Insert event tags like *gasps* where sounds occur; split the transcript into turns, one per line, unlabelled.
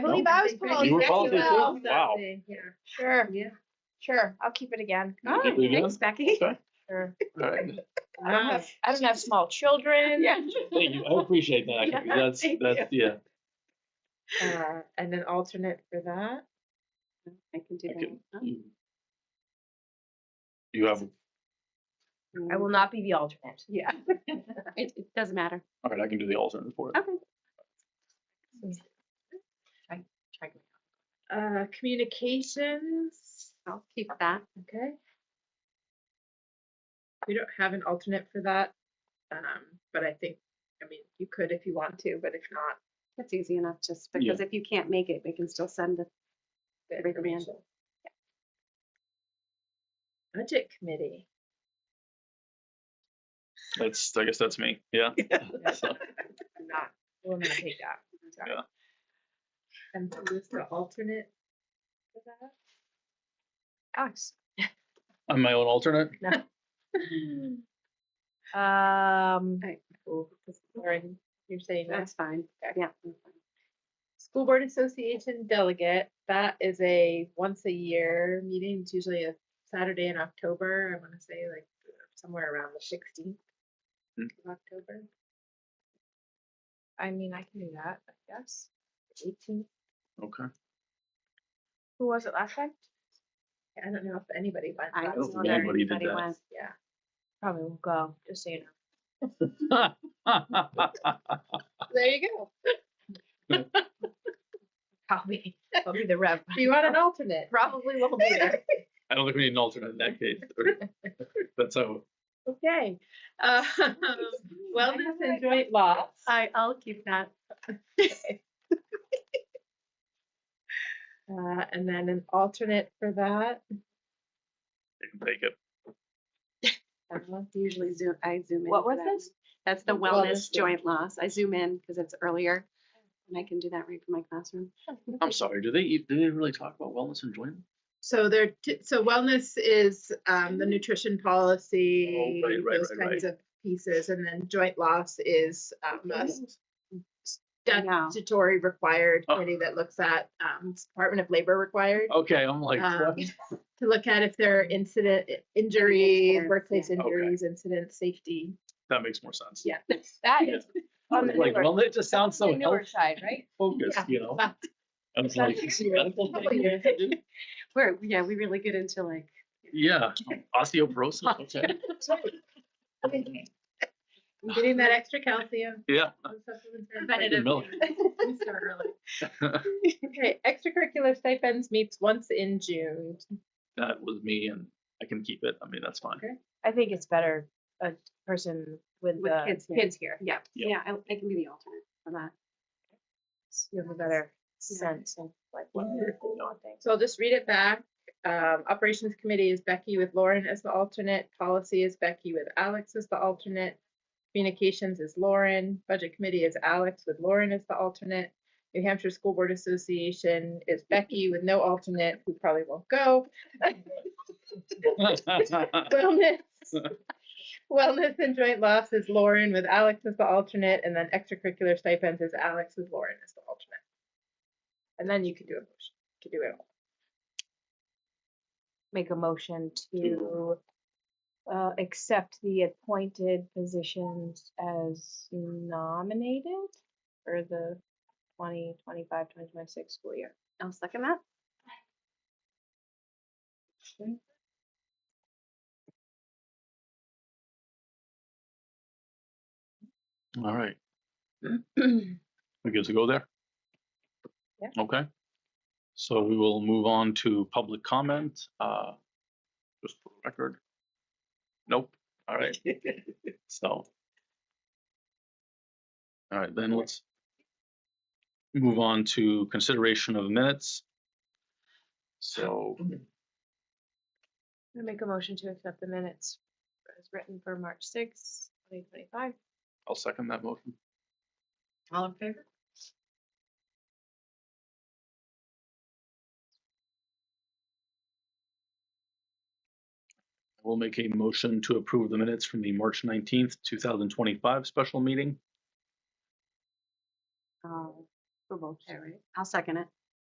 Steve, I was
Well,
You
promoted.
were
thank
policy
you
too?
all.
Wow.
Sure,
Yeah.
sure. I'll keep it again.
All right,
we
Oh, thanks, Becky.
Okay.
*laughs*
Sure.
All right.
I don't have, I don't have small children.
*laughs* Yeah.
Thank you. I appreciate that.
Yeah,
That's,
thank
that's, yeah.
Uh, and an alternate for that.
I can do
I
that.
can- You have,
I will not be the alternate.
Yeah. It, it doesn't matter.
all right, I can do the alternate for it.
Okay.
Uh, communications.
I'll keep that.
Okay. We don't have an alternate for that, um, but I think, I mean, you could if you want to, but if not,
That's easy enough, just
Yeah.
because if you can't make it, we can still send the
the
Recommend.
information. Budget
*laughs*
committee.
That's, I guess that's me. Yeah. So,
Not, we'll not take that. Sorry.
Yeah.
And who's the alternate for that? *gasps*
Alex.
I'm my own alternate.
Um,
Oh, Lauren, you're saying that.
That's fine.
Okay.
Yeah.
School Board Association delegate, that is a once a year meeting. It's usually a Saturday in October. I want to say like somewhere around the 16th
Hmm.
of October.
I mean, I can do that, I guess. Eighteen.
Okay.
Who was it last time?
I don't know if anybody went.
I
last
don't
was
think
year.
wondering if
anybody did
anybody
that.
went.
Yeah.
Probably will go, just so you know.
*laughs* There you go. *laughs*
I'll be, I'll be the rev.
You want an alternate?
*laughs* Probably won't be there.
I don't think we need an alternate in that case. That's how,
Okay. *laughs* Uh, wellness and joint loss.
I, I'll keep that.
Uh, and then an alternate for that.
you can take it.
I
Uh,
Usually zoom, I zoom in.
What
for
was
that
this?
one. That's the
The
wellness
wellness one.
joint loss. I zoom in because it's earlier and I can do that right from my classroom.
I'm sorry. Do they, eat- do they really talk about wellness and enjoyment?
So there, t- so wellness is um, the nutrition policy,
right, right,
those
right,
kinds of pieces, and then joint loss is um, a
Mm-hmm.
s-
I know.
statutory required
Oh.
committee that looks at um, Department of Labor required
Okay, I'm like,
Um,
what?
*laughs* to look at if there are incident i- injuries,
incidents,
workplace
yeah.
Okay.
injuries, incident safety.
that makes more sense.
Yeah.
*laughs* That
Yeah.
is *laughs* on the
Like,
newer-
well, it just sounds
on the
so
newer
health
side, right?
focused,
Yeah.
you
*laughs*
know?
Well,
I was
sounds
like, is
weird.
medical thing here?
We're, yeah, we really get into like,
yeah, osteoporosis. Okay.
Getting that extra calcium.
Yeah.
those supplements are
preventative
milk.
things.
We start early. Okay, extracurricular stipends meets once in June.
That was me, and I can keep it. I mean, that's fine.
I think it's better a person uh, with
With
the
kids here.
kids here.
yeah,
Yeah.
yeah, I, I can be the alternate for that.
You have a better sense of like what
Mhm.
people want things.
So I'll just read it back. Um, Operations Committee is Becky with Lauren as the alternate. Policy is Becky with Alex as the alternate. Communications is Lauren. Budget Committee is Alex with Lauren as the alternate. New Hampshire School Board Association is Becky with no alternate, who probably won't go.
*laughs*
Wellness. *laughs* Wellness and joint loss is Lauren with Alex as the alternate, and then extracurricular stipends is Alex with Lauren as the alternate. And then you can do a motion, you can do it all.
Make a motion to uh, accept the appointed positions as nominated for the 2025, 2026 school year.
I'll second that.
All right. We good to go there?
Yeah.
Okay. So we will move on to public comment, uh, just for the record. Nope, all right. So. All right, then let's move on to consideration of minutes. So,
I make a motion to accept the minutes as written for March 6, 2025.
I'll second that motion.
All in favor?
We'll make a motion to approve the minutes from the March nineteenth, two thousand twenty-five special meeting.
Uh, for both, yeah, right? I'll second it.